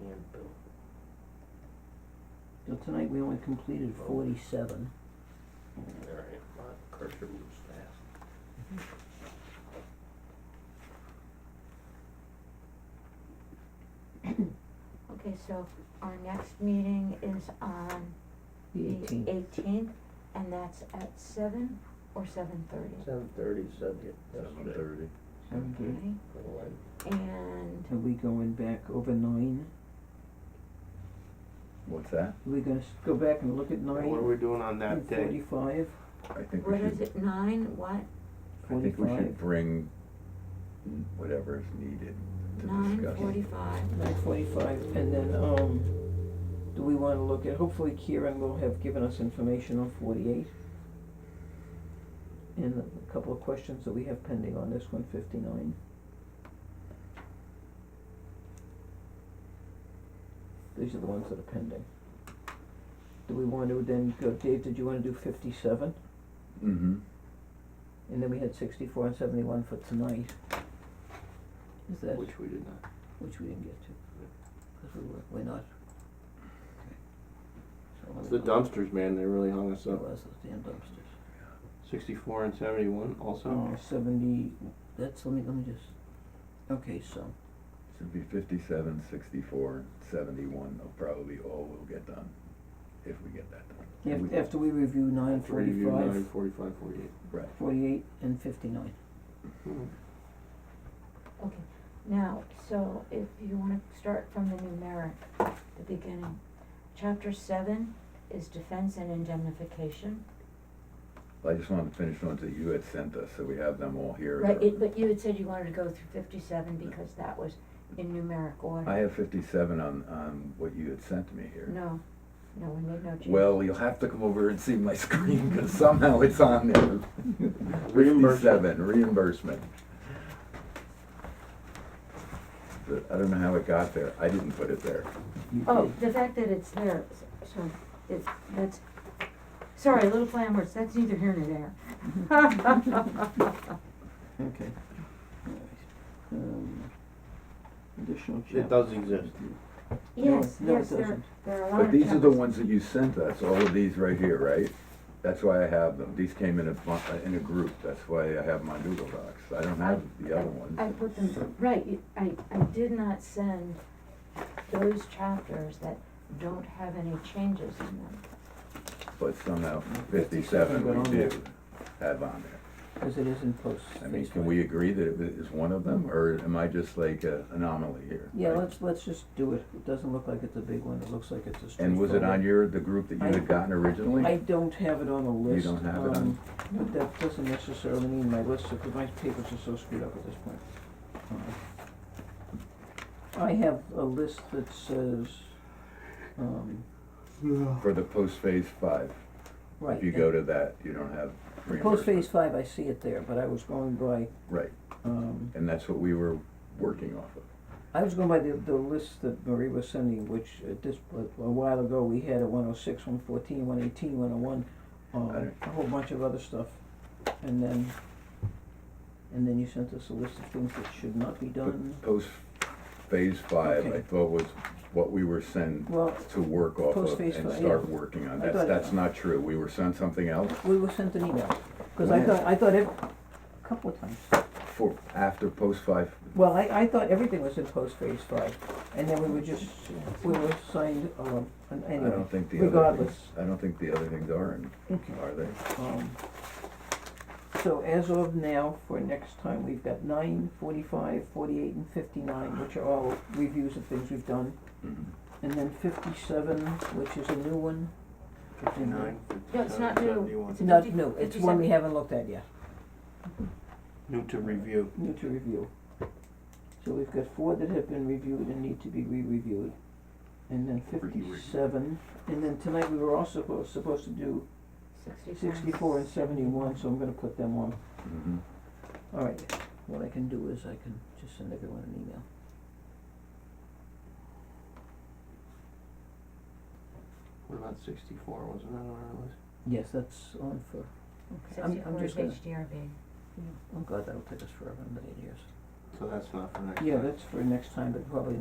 and Bill. So tonight we only completed forty-seven. Alright, my cursor moves fast. Okay, so our next meeting is on The the 18th. eighteenth, and that's at seven or seven thirty? Seven thirty subject. seven thirty. Sound good? And, Are we going back over nine? What's that? Are we gonna s- go back and look at And what are nine we doing on that and day? forty-five? I think we what is should, it, nine, what, I think we should 45. bring whatever is needed to nine discuss. forty-five? Nine forty-five, and then, um, do we wanna look at, hopefully Kieran will have given us information on forty-eight. And a couple of questions that we have pending on this one, fifty-nine. These are the ones that are pending. Do we want to then go, Dave, did you wanna do fifty-seven? Mm-hmm, And then we had sixty-four and seventy-one for tonight. Is that, Which we did not. which we didn't get to, cause we were, we're not. Okay. So let It's me the go- dumpsters, man, they really hung us It up. was those damn dumpsters. Sixty-four and seventy-one also? Uh, seventy, that's, let me, let me just, okay, so, should be fifty-seven, sixty-four, seventy-one, will probably all will get done, if we get that done. And af- we- after we review nine Review nine, forty-five, forty-five, forty-eight. Right, forty-eight, and fifty-nine. Hmm. Okay, now, so if you wanna start from the numeric, the beginning. Chapter seven is defense and indemnification, I just wanted to finish ones that you had sent us, so we have them all here. right, it, but you had said you wanted to go through fifty-seven because that was in numeric order. I have fifty-seven on, on what you had sent me here. No, no, we made no change. Well, you'll have to come over and see my screen, cause somehow it's on there. Reimbursement. Fifty-seven, reimbursement. But I don't know how it got there, I didn't put it there. You- Oh, the fact that it's there, s- so, it's, that's, sorry, little play on words, that's neither here nor there. Okay. Alright. Um, Additional chapter. It does exist. Yes, No, no, it yes, there, doesn't. there are a lot of. But these are the chapters. ones that you sent us, all of these right here, right? That's why I have them, these came in a, bu- uh, in a group, that's why I have them on Google Docs, I don't have the other ones. I put them, right, you- I, I did not send those chapters that don't have any changes in them. But somehow 57 got fifty-seven on we there. do have on there. Cause it is in post. I mean, Facebook. can we agree that it is one of them, or am I just like an anomaly here? Yeah, Like- let's, let's just do it, it doesn't look like it's a big one, it looks like it's a straightforward. And was it on your, the group that you had gotten originally? I don't have it on a list, don't have it on- um, but that doesn't necessarily mean my list, because my papers are so screwed up at this point. Uh, I have a list that says, um, For the post phase five, right. if you go to that, you don't have Post phase reimbursement. five, I see it there, but I was going by, Right, um, and that's what we were working off of. I was going by the, the list that Marie was sending, which at this, a while ago, we had a one oh six, one fourteen, one eighteen, one oh one, um, Alright. a whole bunch of other stuff. And then, and then you sent us a list of things that should not be done. Post phase five, I Okay. thought was what we were sent Well, to work off Post of phase and five, start yeah. working on. I That's, thought- that's not true. We were sent something else we were sent an email, cause I When? thought, I thought ev- a couple of times. for, after post five, Well, I, I thought everything was in post phase five, and then we were just, we were signed, um, an- I anyway, don't think the other regardless. things, I don't think the other things are, in- Okay. are they? Mm-hmm. Um, so as of now, for next time, we've got nine, forty-five, forty-eight, and fifty-nine, which are all reviews of things we've done. Mhm. And then fifty-seven, which is a new one, Fifty-nine, No, it's fifty-seven, not new. seventy-one. It's a- not Fifty- new, it's one we 57. haven't looked at yet, New to review. new to review. So we've got four that have been reviewed and need to be re-reviewed, and then Re-reviewed. fifty-seven, and then tonight we were also supposed, supposed to do Sixty-four. sixty-four and seventy-one, so I'm gonna put them on. Mhm. All right, what I can do is I can just send everyone an email. What about sixty-four, wasn't that on our list? Yes, that's on for, okay, I'm, I'm Sixty-four is just gonna, HDRB. I'm glad that'll take us forever, a million years. So that's not for next time. Yeah, that's for next time, but probably not